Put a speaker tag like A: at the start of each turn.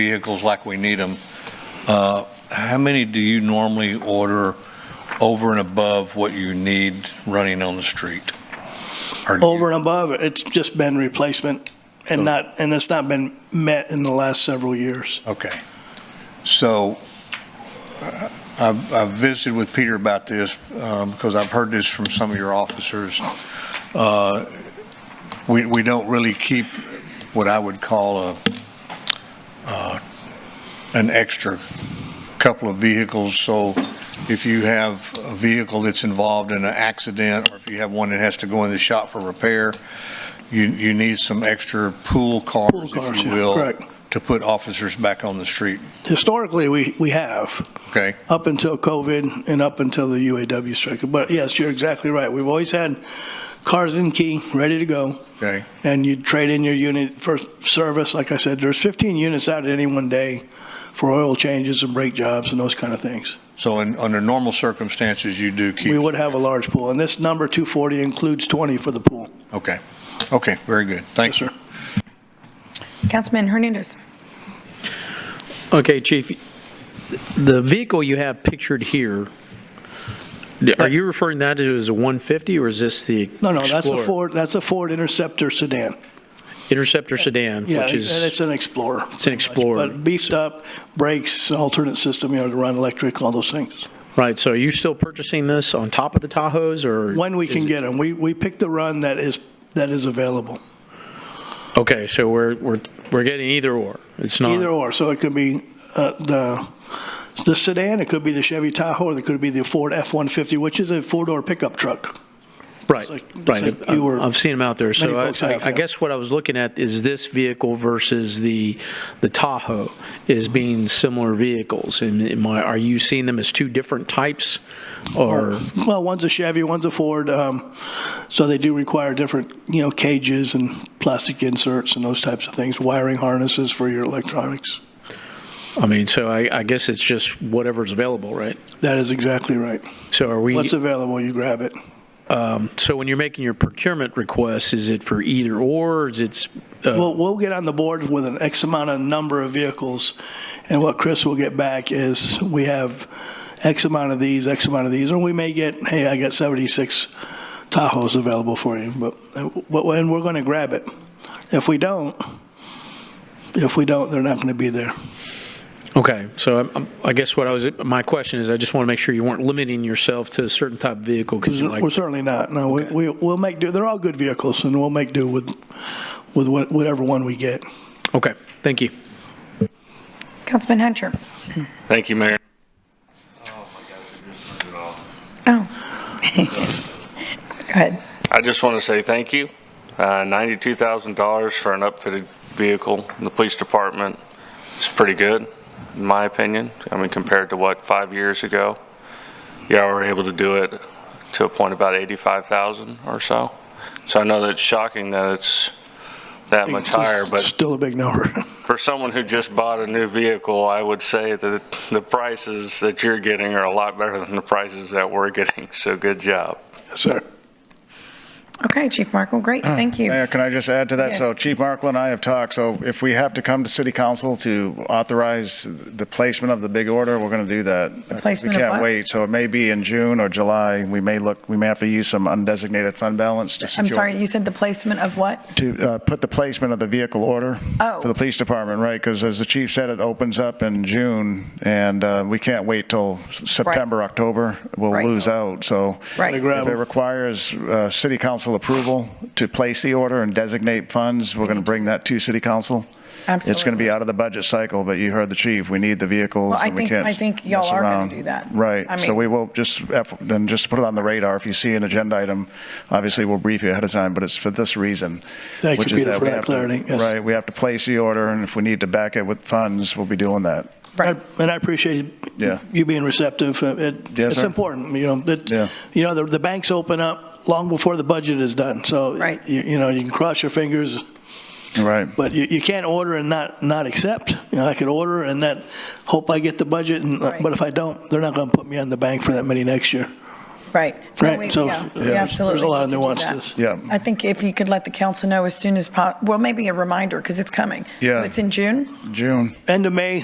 A: vehicles like we need them. Uh, How many do you normally order over and above what you need running on the street? Or do you-
B: Over and above, it's just been replacement and not, and it's not been met in the last several years.
A: Okay. So uh, I've I've visited with Peter about this um, because I've heard this from some of your officers. Uh, We we don't really keep what I would call a, uh, an extra couple of vehicles. So if you have a vehicle that's involved in an accident or if you have one that has to go in the shop for repair, you you need some extra pool
B: Pool
A: cars,
B: cars,
A: if you
B: yeah,
A: will
B: correct.
A: to put officers back on the street,
B: Historically, we, we have,
A: okay?
B: up until COVID and up until the UAW strike. But yes, you're exactly right. We've always had cars in key, ready to go.
A: Okay,
B: and you trade in your unit for service. Like I said, there's 15 units out at any one day for oil changes and brake jobs and those kind of things.
A: so in, under normal circumstances, you do keep.
B: We would have a large pool, and this number 240 includes 20 for the pool.
A: Okay, okay, very good,
B: Yes,
A: thank you.
B: sir.
C: Councilman Hernandez.
D: Okay, Chief, the vehicle you have pictured here, are you referring that to as a 150 or is this the
B: No, no, that's a
D: Explorer?
B: Ford. That's a Ford Interceptor sedan.
D: Interceptor sedan,
B: Yeah,
D: which
B: and
D: is,
B: it's an Explorer. It's
D: an Explorer.
B: but beefed up, brakes, alternate system, you know, to run electric, all those things.
D: right, so are you still purchasing this on top of the Tahoes or?
B: When we can
D: is it-
B: get them, we we pick the run that is that is available.
D: Okay, so we're, we're, we're getting either or. It's not.
B: Either or, so it could be uh, the, the sedan, it could be the Chevy Tahoe, or it could be the Ford F-150, which is a four-door pickup truck.
D: Right,
B: like- it's
D: right.
B: like you were-
D: I've seen them out there. So
B: Many
D: I-
B: folks
D: I
B: have,
D: I
B: yeah.
D: guess what I was looking at is this vehicle versus the, the Tahoe is being similar vehicles. And am I- are you seeing them as two different types? Or,
B: Well, one's a Chevy, one's a Ford, um, so they do require different, you know, cages and plastic inserts and those types of things, wiring harnesses for your electronics.
D: I mean, so I, I guess it's just whatever's available, right?
B: That is exactly right.
D: So are we,
B: What's available, you grab it.
D: so when you're making your procurement request, is it for either or? Is it's, uh,
B: Well, we'll get on the board with an X amount of number of vehicles, and what Chris will get back is, we have X amount of these, X amount of these, or we may get, hey, I got 76 Tahoes available for you, but, but- and we're going to grab it. If we don't, if we don't, they're not going to be there.
D: okay, so I'm- I'm- I guess what I was, my question is, I just want to make sure you weren't limiting yourself to a certain type of vehicle because you like.
B: We're certainly not, no, we, we- we'll make do, they're all good vehicles, and we'll make do with, with what- whatever one we get.
D: Okay, thank you.
C: Councilman Hunter.
E: Thank you, Mayor.
C: Oh. Go ahead.
E: I just want to say thank you. Uh, $92,000 for an upfitted vehicle in the police department is pretty good, in my opinion. I mean, compared to what, five years ago? Y'all were able to do it to a point about 85,000 or so. So I know that it's shocking that it's that much higher, but
B: Still a big number.
E: for someone who just bought a new vehicle, I would say that the prices that you're getting are a lot better than the prices that we're getting, so good job.
B: Sir.
C: Okay, Chief Markle, great, thank you.
F: Mayor, can Uh, I just add to that? So
C: Yes.
F: Chief Markle and I have talked, so if we have to come to city council to authorize the placement of the big order, we're going to do that.
C: placement of
F: We
C: what?
F: can't wait, so it may be in June or July, we may look, we may have to use some undesignated fund balance to secure.
C: I'm sorry, you said the placement of what?
F: To uh, put the placement of the vehicle order.
C: Oh.
F: For the police department, right, because as the chief said, it opens up in June, and uh, we can't wait till September, October, we'll
C: Right.
F: lose out, so.
C: Right. Gotta
B: grab
F: If it
B: 'em.
F: requires uh, city council approval to place the order and designate funds, we're going
C: Mhm.
F: to bring that to city council. It's going to
C: Absolutely.
F: be out of the budget cycle, but you heard the chief, we need the vehicles
C: Well, I
F: and we
C: think-
F: can't
C: I think y'all
F: mess
C: are gonna
F: around.
C: do that. I
F: Right, so
C: mean-
F: we will, just, F- then just to put it on the radar, if you see an agenda item, obviously we'll brief you ahead of time, but it's for this reason.
B: Thank you,
F: which is
B: Peter, for
F: we
B: that
F: have to-
B: clarity, yes.
F: Right, we have to place the order, and if we need to back it with funds, we'll be doing that.
C: Right.
B: I- And I appreciate
F: Yeah.
B: you being receptive. Uh, it-
F: Yes,
B: It's
F: sir.
B: important, you know,
F: Yeah.
B: that, you know, the, the banks open up long before the budget is done. So,
C: Right.
B: you, you know, you can cross your fingers,
F: Right.
B: but you, you can't order and not, not accept. You know, I could order and that, hope I get the budget, and,
C: Right.
B: but if I don't, they're not going to put me on the bank for that many next year.
C: Right. No,
B: Right,
C: we-
B: so,
C: yeah, we
B: yeah, there's-
C: absolutely
B: there's a lot of
C: need to do that.
B: nuances.
F: Yeah.
C: I think if you could let the council know as soon as po, well, maybe a reminder, because it's coming.
F: Yeah.
C: It's in June?
F: June.
B: End of May,